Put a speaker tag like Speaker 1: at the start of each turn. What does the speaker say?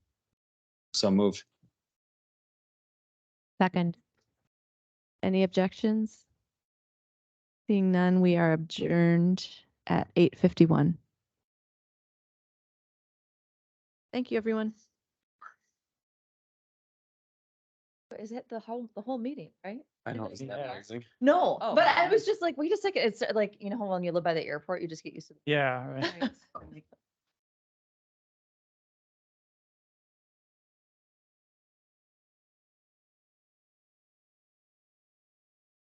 Speaker 1: So moved.
Speaker 2: Second. Any objections? Seeing none, we are adjourned at eight fifty-one. Thank you, everyone. Is it the whole, the whole meeting, right?
Speaker 1: I
Speaker 3: don't think that was-
Speaker 2: No,
Speaker 3: Oh.
Speaker 2: but I was just like, wait a second, it's like, you know how when you live by the airport, you just get used to.
Speaker 4: Yeah. right.
Speaker 3: Right.